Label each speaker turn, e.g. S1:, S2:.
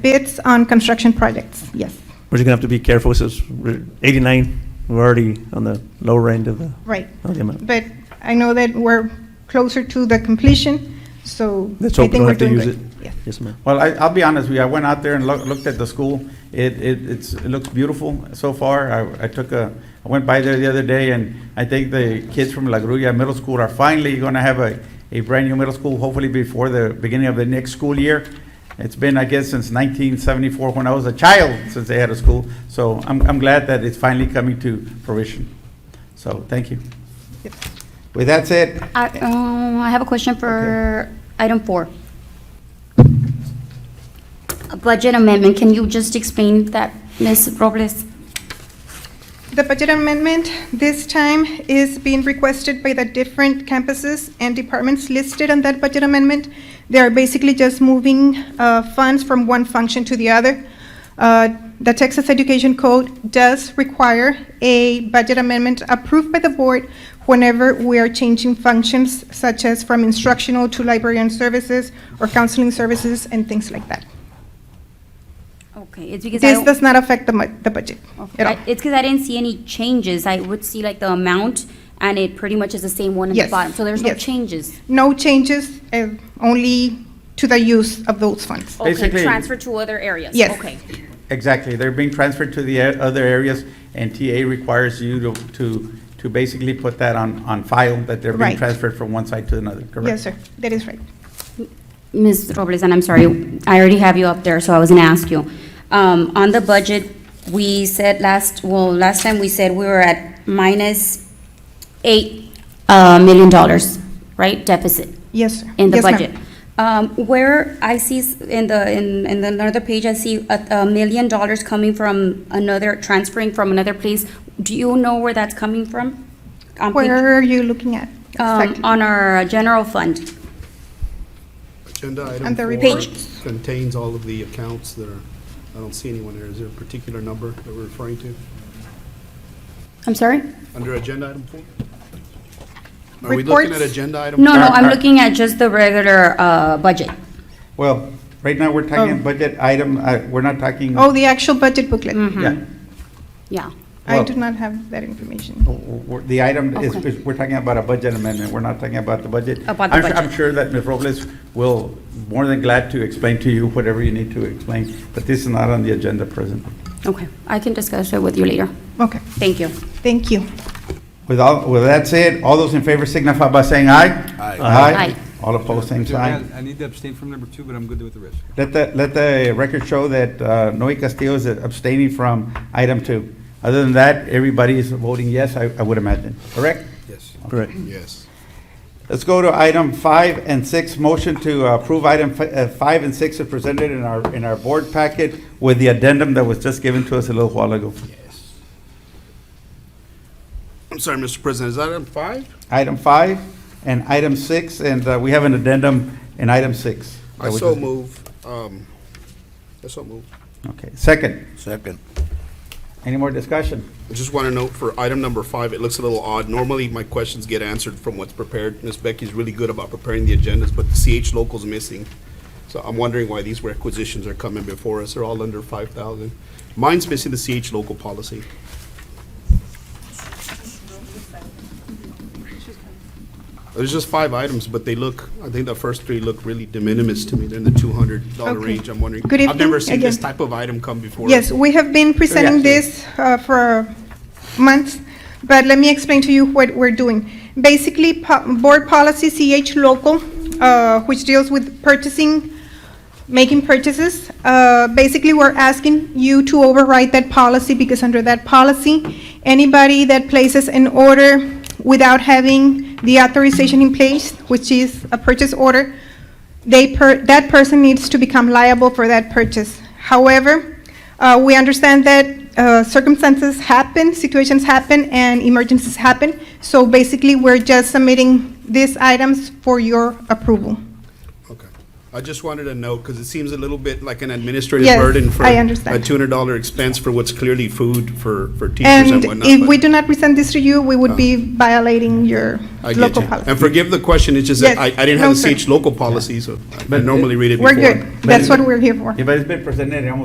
S1: Bids on construction projects, yes,
S2: We're just gonna have to be careful, since we're 89, we're already on the lower end of the,
S1: right.
S2: of the amount.
S1: But I know that we're closer to the completion, so I
S2: Let's
S1: think
S2: hope we don't
S1: we're
S2: have to
S1: doing
S2: use
S1: good.
S2: it.
S1: Yes.
S2: Yes, ma'am.
S3: Well, I, I'll be honest with you, I went out there and loo- looked at the school. It, it, it's, it looks beautiful so far. I, I took a, I went by there the other day and I think the kids from La Gruya Middle School are finally gonna have a, a brand-new middle school, hopefully before the beginning of the next school year. It's been, I guess, since nineteen seventy-four, when I was a child, since they had a school. So I'm, I'm glad that it's finally coming to fruition. So, thank you.
S1: Yep.
S3: With that said,
S4: I, um, I have a question for item four. A budget amendment, can you just explain that, Ms. Robles?
S1: The budget amendment this time is being requested by the different campuses and departments listed on that budget amendment. They are basically just moving uh, funds from one function to the other. Uh, The Texas Education Code does require a budget amendment approved by the board whenever we are changing functions such as from instructional to librarian services or counseling services and things like that.
S4: Okay, it's because I
S1: This
S4: don't,
S1: does not affect the mu- the budget
S4: okay,
S1: at all.
S4: I- it's because I didn't see any changes, I would see like the amount, and it pretty much is the same one in the
S1: Yes,
S4: bottom, so there's no
S1: yes.
S4: changes.
S1: No changes, uh, only to the use of those funds.
S4: Okay,
S3: Basically-
S4: transfer to other areas,
S1: Yes.
S4: okay.
S3: Exactly, they're being transferred to the e- other areas, and TA requires you to, to, to basically put that on, on file, that they're being
S1: Right.
S3: transferred from one side to another, correct?
S1: Yes, sir, that is right.
S4: Ms. Robles, and I'm sorry, I already have you up there, so I was gonna ask you. Um, on the budget, we said last, well, last time we said we were at minus eight, uh, million dollars, right, deficit
S1: Yes, sir.
S4: in the
S1: Yes, ma'am.
S4: budget. Um, where I see, s- in the, in, in another page, I see a, a million dollars coming from another, transferring from another place. Do you know where that's coming from? On page-
S1: Where are you looking at?
S4: Um,
S1: Exactly.
S4: on our general fund.
S5: Agenda item
S1: And the
S5: four
S4: Page.
S5: contains all of the accounts that are, I don't see anyone there. Is there a particular number that we're referring to?
S4: I'm sorry?
S5: Under agenda item four? Are we looking
S1: Reports?
S5: at agenda item?
S4: No, no,
S3: Uh,
S4: I'm
S3: uh,
S4: looking at just the regular uh, budget.
S3: Well, right now, we're
S1: Oh.
S3: talking budget item, uh, we're not talking.
S1: Oh, mhm. the actual budget booklet.
S4: Mm.
S3: Yeah,
S4: Yeah.
S1: I
S3: well-
S1: do not have that information.
S3: W- w- w- The item is,
S4: Okay.
S3: is- we're talking about a budget amendment, we're not talking about the budget.
S4: About the
S3: I'm su- I'm
S4: budget.
S3: sure that Ms. Robles will, more than glad to explain to you whatever you need to explain, but this is not on the agenda presently.
S4: Okay, I can discuss it with you later.
S1: Okay,
S4: Thank you.
S1: thank you.
S3: With all, with that said, all those in favor signify by saying aye.
S5: Aye.
S4: Aye.
S3: All opposed, same
S6: Mr. Mayor,
S3: sign.
S6: I need to abstain from number two, but I'm good with the rest.
S3: Let the, let the record show that uh, Noe Castillo is abstaining from item two. Other than that, everybody is voting yes, I, I would imagine, correct?
S5: Yes,
S2: Correct.
S5: yes.
S3: Let's go to item five and six, motion to approve item fi- uh, five and six are presented in our, in our board packet with the addendum that was just given to us a little while ago.
S5: I'm sorry, Mr. President, is that item five?
S3: Item five and item six, and uh, we have an addendum in item six.
S5: I so move, um, I so move.
S3: Okay, second,
S7: Second.
S3: any more discussion?
S5: I just want to note for item number five, it looks a little odd. Normally, my questions get answered from what's prepared. Ms. Becky's really good about preparing the agendas, but the CH local's missing. So I'm wondering why these requisitions are coming before us. They're all under five thousand. Mine's missing the CH local policy. There's just five items, but they look, I think the first three look really de minimis to me. They're in the two hundred dollar
S1: Okay.
S5: range. I'm wondering.
S1: Good
S5: I've never
S1: evening
S5: seen this
S1: again.
S5: type of item come before. us.
S1: Yes, we have been presenting this uh, for months, but let me explain to you what we're doing. Basically, po- Board Policy CH Local, uh, which deals with purchasing, making purchases, uh, basically, we're asking you to override that policy because under that policy, anybody that places an order without having the authorization in place, which is a purchase order, they per, that person needs to become liable for that purchase. However, uh, we understand that uh, circumstances happen, situations happen, and emergencies happen. So basically, we're just submitting these items for your approval.
S5: Okay. I just wanted to know, because it seems a little bit like an administrative
S1: Yes,
S5: burden for
S1: I understand.
S5: a two hundred dollar expense for what's clearly food for, for teachers
S1: And
S5: and whatnot.
S1: if
S5: but
S1: we do not present this to you, we would be violating your
S5: Oh. I get
S1: local
S5: you.
S1: policy.
S5: And forgive the question, it's just that
S1: Yes,
S5: I, I didn't
S1: no,
S5: have
S1: sir.
S5: the CH local policy, so I
S3: But-
S5: normally read it
S1: We're
S5: before.
S1: good. That's what we're here for.
S3: Yeah, but it's been presented in almost